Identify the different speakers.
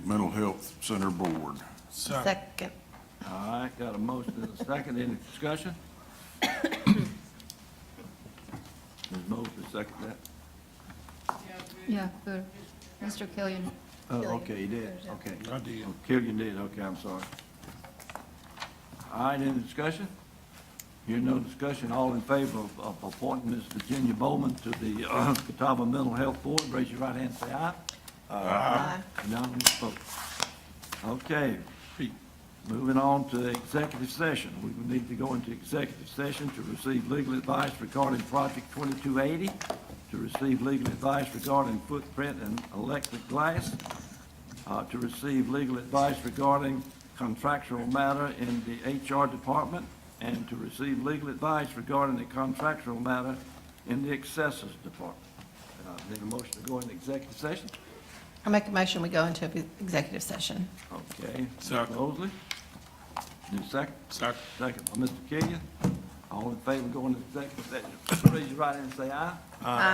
Speaker 1: Mental Health Center Board.
Speaker 2: Second.
Speaker 3: All right, got a motion and a second, any discussion? Ms. Mosley, second that?
Speaker 4: Yeah, good. Mr. Killian.
Speaker 3: Oh,
Speaker 2: Killian.
Speaker 3: okay, you did, okay.
Speaker 1: I did.
Speaker 3: Oh, Killian did, okay, I'm sorry. All right, any discussion? Here, no discussion, all in favor of, of appointing Ms. Virginia Bowman to the, uh, Catawba Mental Health Board, raise your right hand, and say aye.
Speaker 2: Aye.
Speaker 3: Unanimous vote. Okay, moving on to executive session. We will need to go into executive session to receive legal advice regarding Project 2280, to receive legal advice regarding footprint and electric glass, uh, to receive legal advice regarding contractual matter in the HR department, and to receive legal advice regarding the contractual matter in the accessors department. Uh, Need a motion to go into executive session?
Speaker 2: I make a motion, we go into executive session.
Speaker 3: Okay.
Speaker 1: Second.
Speaker 3: Mosley? Need a second?
Speaker 1: Second.
Speaker 3: Second by Mr. Killian. All in favor going to executive session, raise your right hand and say aye.